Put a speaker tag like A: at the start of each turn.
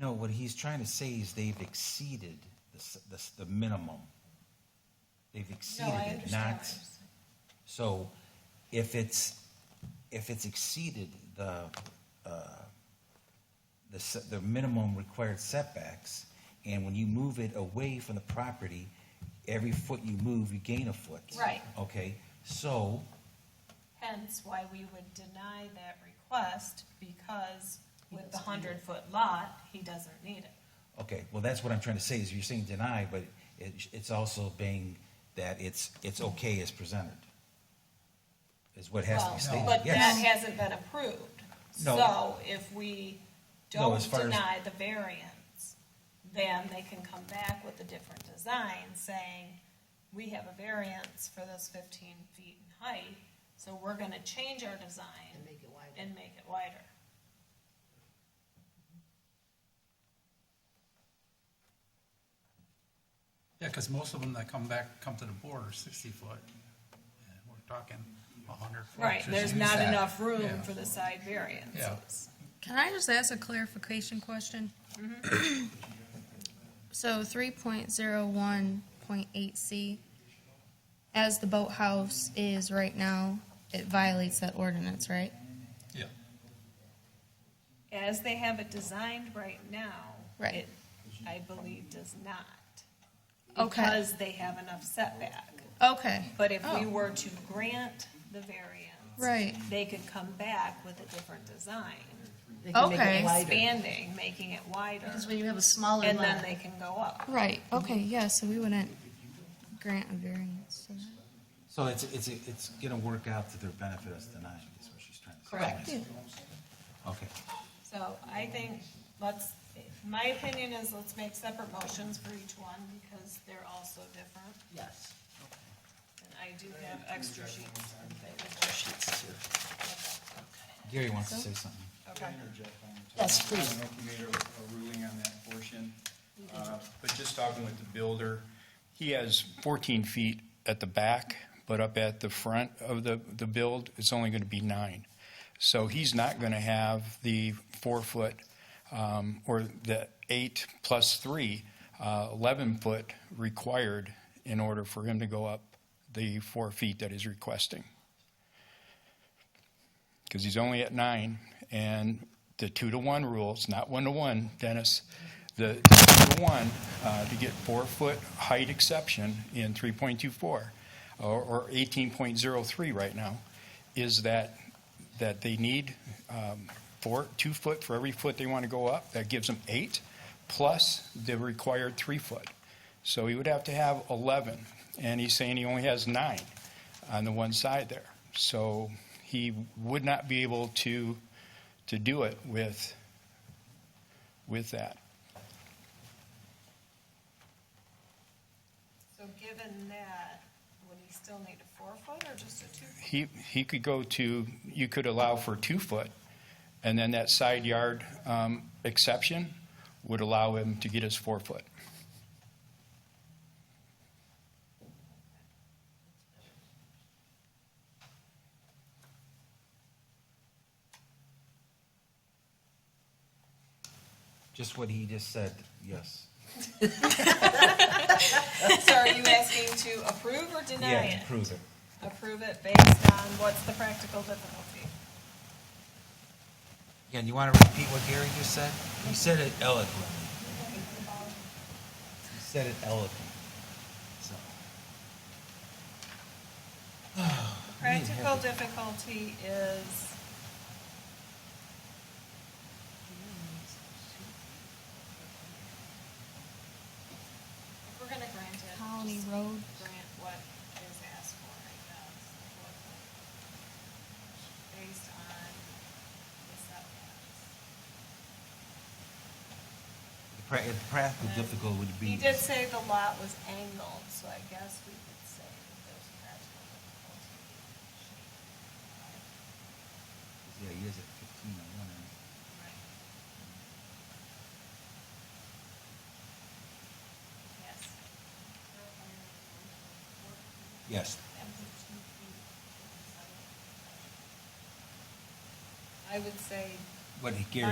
A: No, what he's trying to say is they've exceeded the, s- the, s- the minimum. They've
B: No,
A: exceeded
B: I
A: it,
B: understand.
A: not, so if it's, if it's exceeded the, uh, the, s- the minimum required setbacks, and when you move it away from the property, every foot you move, you gain a foot.
B: Right.
A: Okay, so,
B: Hence why we would deny that request, because with the hundred-foot lot, he doesn't need it.
A: Okay, well, that's what I'm trying to say, is you're saying deny, but it, it's also being that it's, it's okay as presented. Is what has to
B: Well,
A: be stated,
B: But that
A: yes.
B: hasn't been approved.
A: No.
B: So if we
A: No,
B: don't
A: as far as-
B: deny the variance, then they can come back with a different design, saying, we have a variance for this fifteen feet in height, so we're gonna change our design
C: and make it wider.
B: and make it wider.
D: Yeah, because most of them that come back, come to the board are sixty foot. And We're talking a hundred foot.
B: Right,
D: just
B: there's
D: use
B: not
D: that.
B: enough room
D: Yeah.
B: for the side variances.
E: Can I just ask a clarification question? Mm-hmm. So three point zero one point eight C, as the boathouse is right now, it violates that ordinance, right?
D: Yeah,
B: As they have it designed right now.
E: Right.
B: it, I believe does not.
E: Okay.
B: Because they have enough setback.
E: Okay,
B: But if we
E: Oh.
B: were to grant the variance,
E: right,
B: they could come back with a different design,
C: They can make it
E: Okay.
C: wider.
B: expanding, making it wider,
C: Because when you have a smaller
B: and then
C: lot,
B: they can go up.
E: right, okay, yeah, so we wouldn't grant a variance. to that.
A: So it's, it's, it's gonna work out to their benefit as denying, is what she's trying to say.
C: Correct.
E: Yeah.
A: Okay,
B: So I think, let's, my opinion is let's make separate motions for each one, because they're all so different.
C: yes.
B: And I do have extra sheets. Extra sheets too.
A: Gary wants to say something.
F: Can I interject on the
C: Yes,
F: topic?
C: please.
F: I don't know if you made a- a ruling on that portion, uh, but just talking with the builder, he has 14 feet at the back, but up at the front of the, the build, it's only going to be nine. So he's not going to have the four-foot um, or the eight plus three, uh, 11-foot required in order for him to go up the four feet that he's requesting because he's only at nine, and the two to one rule, it's not one to one, Dennis. The two to one, uh, to get four foot height exception in three point two four, or, or eighteen point zero three right now, is that, that they need, um, four, two foot for every foot they want to go up, that gives them eight, plus the required three foot. So he would have to have eleven, and he's saying he only has nine on the one side there. So he would not be able to, to do it with, with that.
B: So given that, would he still need a four foot or just a two? foot?
F: He, he could go to, you could allow for two foot, and then that side yard um, exception would allow him to get his four foot.
A: Just what he just said, yes.
B: So are you asking to approve or deny
A: Yeah,
B: it?
A: prove it.
B: Approve it based on what's the practical difficulty?
A: Again, you wanna repeat what Gary just said? He said it eloquently. He said it eloquently, so.
B: The Practical difficulty is if we're gonna grant it.
E: Colony
B: just
E: Road.
B: Grant what is asked for, I guess. what- Based on the setbacks.
A: The pra- the practical difficulty would be.
B: He did say the lot was angled, so I guess we could say that there's practical difficulty.
A: Yeah, he is at fifteen, I wonder.
B: Yes.
A: Yes.
B: I would say
A: What Gary